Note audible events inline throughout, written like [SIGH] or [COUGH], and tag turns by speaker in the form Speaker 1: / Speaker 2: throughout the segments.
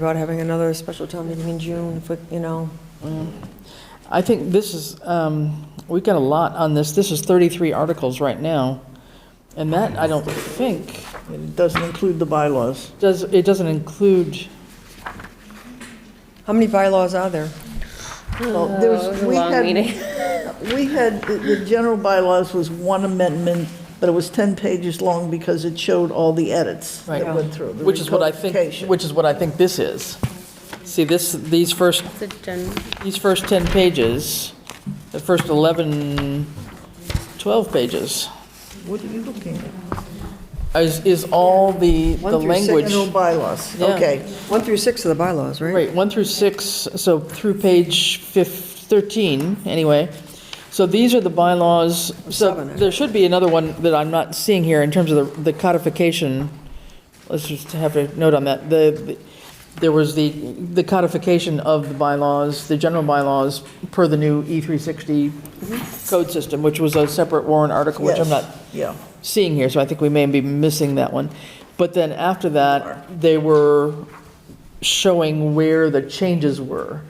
Speaker 1: About having another special town meeting in June, if we, you know,
Speaker 2: I think this is, um, we've got a lot on this. This is 33 articles right now. And that, I don't think,
Speaker 3: And It doesn't include the bylaws.
Speaker 2: does, it doesn't include,
Speaker 1: how many bylaws are there?
Speaker 3: Well, there
Speaker 4: Oh, it was a
Speaker 3: we
Speaker 4: long
Speaker 3: had-
Speaker 4: meeting.
Speaker 3: [LAUGHS] We had, the- the general bylaws was one amendment, but it was 10 pages long because it showed all the edits
Speaker 2: Right.
Speaker 3: that went through. the
Speaker 2: which is what I think,
Speaker 3: recodification.
Speaker 2: which is what I think this is. See, this, these first,
Speaker 4: It's a gen-
Speaker 2: these first 10 pages, the first 11, 12 pages
Speaker 3: What are you looking at?
Speaker 2: is, is all the, the
Speaker 1: One through six.
Speaker 2: language.
Speaker 3: General bylaws,
Speaker 2: Yeah.
Speaker 3: okay.
Speaker 1: One through six of the bylaws, right?
Speaker 2: Right, 1 through 6, so through page fif- 13, anyway. So these are the bylaws. So
Speaker 1: Seven,
Speaker 2: there should be another one that I'm not seeing here in terms of the the codification. Let's just have a note on that. The, the- there was the, the codification of the bylaws, the general bylaws per the new E360
Speaker 1: Mm-hmm.
Speaker 2: code system, which was a separate warrant article, which I'm
Speaker 3: Yes,
Speaker 2: not
Speaker 3: Yeah,
Speaker 2: seeing here, so I think we may be missing that one. But then after that, they were showing where the changes were.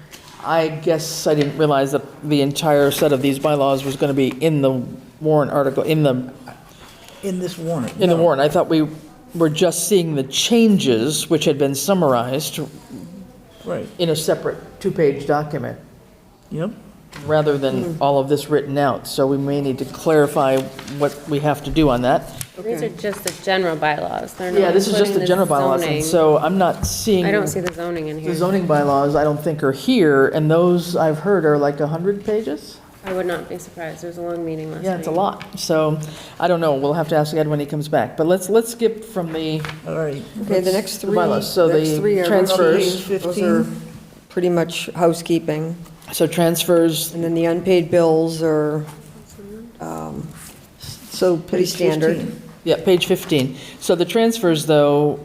Speaker 2: I guess I didn't realize that the entire set of these bylaws was going to be in the warrant article, in the,
Speaker 3: in this warrant.
Speaker 2: in the
Speaker 3: no.
Speaker 2: warrant. I thought we were just seeing the changes, which had been summarized
Speaker 3: Right,
Speaker 2: in a separate two-page document,
Speaker 3: yep.
Speaker 2: rather than
Speaker 4: Mm-hmm.
Speaker 2: all of this written out. So we may need to clarify what we have to do on that.
Speaker 4: These are just the general bylaws. They're
Speaker 2: Yeah,
Speaker 4: not
Speaker 2: this is just
Speaker 4: including
Speaker 2: the general bylaws, and
Speaker 4: zoning.
Speaker 2: so I'm not seeing.
Speaker 4: I don't see the zoning in
Speaker 2: The
Speaker 4: here.
Speaker 2: zoning bylaws, I don't think are here, and those I've heard are like 100 pages?
Speaker 4: I would not be surprised. It was a long meeting last night.
Speaker 2: Yeah, it's a lot, so, I don't know, we'll have to ask Ed when he comes back, but let's, let's skip from the,
Speaker 3: All right.
Speaker 1: Okay, the next
Speaker 2: The
Speaker 1: three,
Speaker 2: bylaws, so
Speaker 1: next
Speaker 2: the
Speaker 1: three are
Speaker 2: transfers.
Speaker 1: those- Those are pretty much housekeeping.
Speaker 2: so transfers,
Speaker 1: And then the unpaid bills are, um,
Speaker 3: So
Speaker 1: Pretty
Speaker 3: page
Speaker 1: standard.
Speaker 3: 15.
Speaker 2: yeah, page 15. So the transfers, though,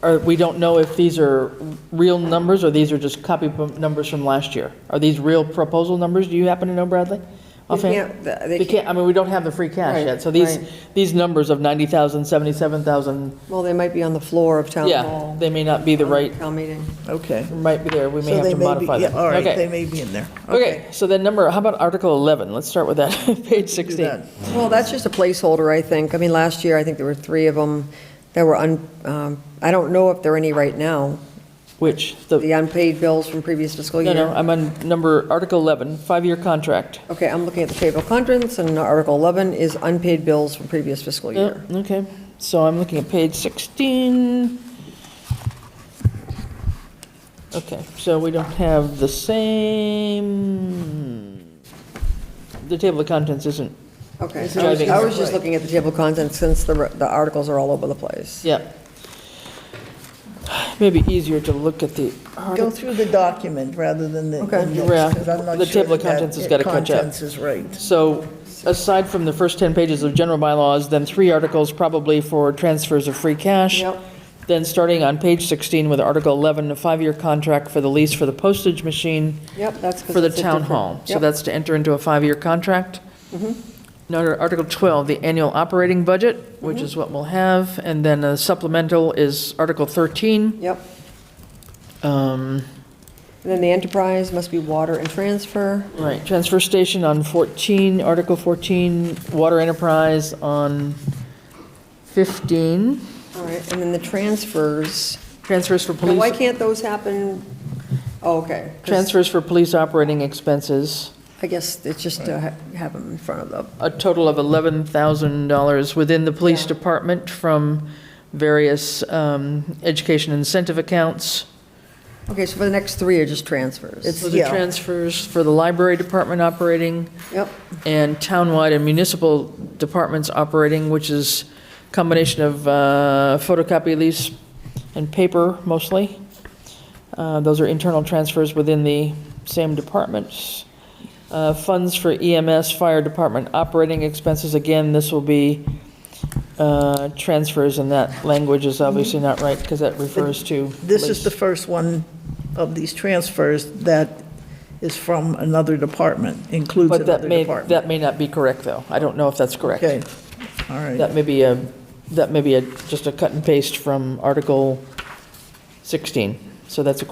Speaker 2: are, we don't know if these are real numbers, or these are just copy p- numbers from last year. Are these real proposal numbers, do you happen to know, Bradley?
Speaker 1: they
Speaker 2: Offhand?
Speaker 1: can't, they
Speaker 2: We
Speaker 1: can't,
Speaker 2: can't, I mean, we don't have the free cash
Speaker 1: Right,
Speaker 2: yet, so these,
Speaker 1: right.
Speaker 2: these numbers of 90,000, 77,000,
Speaker 1: well, they might be on the floor of town
Speaker 2: yeah,
Speaker 1: hall.
Speaker 2: they may not be the right,
Speaker 1: Town meeting.
Speaker 3: Okay.
Speaker 2: might be there, we may
Speaker 3: So
Speaker 2: have
Speaker 3: they
Speaker 2: to
Speaker 3: may be,
Speaker 2: modify
Speaker 3: yeah,
Speaker 2: them.
Speaker 3: all right,
Speaker 2: Okay.
Speaker 3: they may be in there.
Speaker 2: Okay, so then number, how about Article 11? Let's start with that, [LAUGHS] page
Speaker 3: Do
Speaker 2: 16.
Speaker 3: that.
Speaker 1: Well, that's just a placeholder, I think. I mean, last year, I think there were three of them that were un, um, I don't know if there are any right now,
Speaker 2: Which, the,
Speaker 1: the unpaid bills from previous fiscal
Speaker 2: no,
Speaker 1: year.
Speaker 2: no, I'm on number, Article 11, five-year contract.
Speaker 1: Okay, I'm looking at the table of contents, and Article 11 is unpaid bills from previous fiscal year.
Speaker 2: Yep, Oh, Okay, so I'm looking at page 16. Okay, so we don't have the same, the table of contents isn't
Speaker 1: Okay,
Speaker 2: It's
Speaker 1: so I was-
Speaker 2: driving
Speaker 1: I was just
Speaker 3: separate.
Speaker 1: looking at the table of contents, since the re- the articles are all over the place.
Speaker 2: Yeah. Maybe easier to look at the
Speaker 3: Go
Speaker 2: article.
Speaker 3: through the document rather than the
Speaker 1: Okay.
Speaker 3: index,
Speaker 2: Yeah,
Speaker 3: 'cause I'm not
Speaker 2: the
Speaker 3: sure
Speaker 2: table of
Speaker 3: that
Speaker 2: contents has gotta catch up.
Speaker 3: Contents is right.
Speaker 2: So aside from the first 10 pages of general bylaws, then three articles probably for transfers of free cash.
Speaker 1: Yep.
Speaker 2: Then starting on page 16 with Article 11, a five-year contract for the lease for the postage machine
Speaker 1: Yep, that's because
Speaker 2: for the town hall. So that's to enter into a five-year contract.
Speaker 1: Mm-hmm.
Speaker 2: Now, to Article 12, the annual operating budget,
Speaker 1: Mm-hmm.
Speaker 2: which is what we'll have. And then a supplemental is Article 13.
Speaker 1: Yep,
Speaker 2: Um,
Speaker 1: and then the enterprise must be water and transfer.
Speaker 2: Right, transfer station on 14, Article 14, water enterprise on 15,
Speaker 1: All right, and then the transfers.
Speaker 2: transfers for
Speaker 1: Now, Why
Speaker 2: police,
Speaker 1: can't those happen? Oh, okay. 'cause
Speaker 2: transfers for police operating expenses,
Speaker 1: I guess it's just to ha- have them in front of the,
Speaker 2: a total of $11,000 within the police
Speaker 1: Yeah.
Speaker 2: department from various um, education incentive accounts.
Speaker 1: okay, so for the next three are just transfers.
Speaker 3: It's-
Speaker 2: So the
Speaker 3: Yeah.
Speaker 2: transfers for the library department operating,
Speaker 1: Yep,
Speaker 2: and townwide and municipal departments operating, which is combination of uh, photocopy lease and paper mostly. Uh, Those are internal transfers within the same departments. Uh, Funds for EMS, fire department operating expenses, again, this will be uh, transfers, and that language is obviously not right because that refers to.
Speaker 3: This is
Speaker 2: lease.
Speaker 3: the first one of these transfers that is from another department, includes
Speaker 2: But that
Speaker 3: another
Speaker 2: may,
Speaker 3: department.
Speaker 2: that may not be correct, though. I don't know if that's correct.
Speaker 3: Okay, all right.
Speaker 2: That may be a, that may be a, just a cut and paste from Article 16. So that's a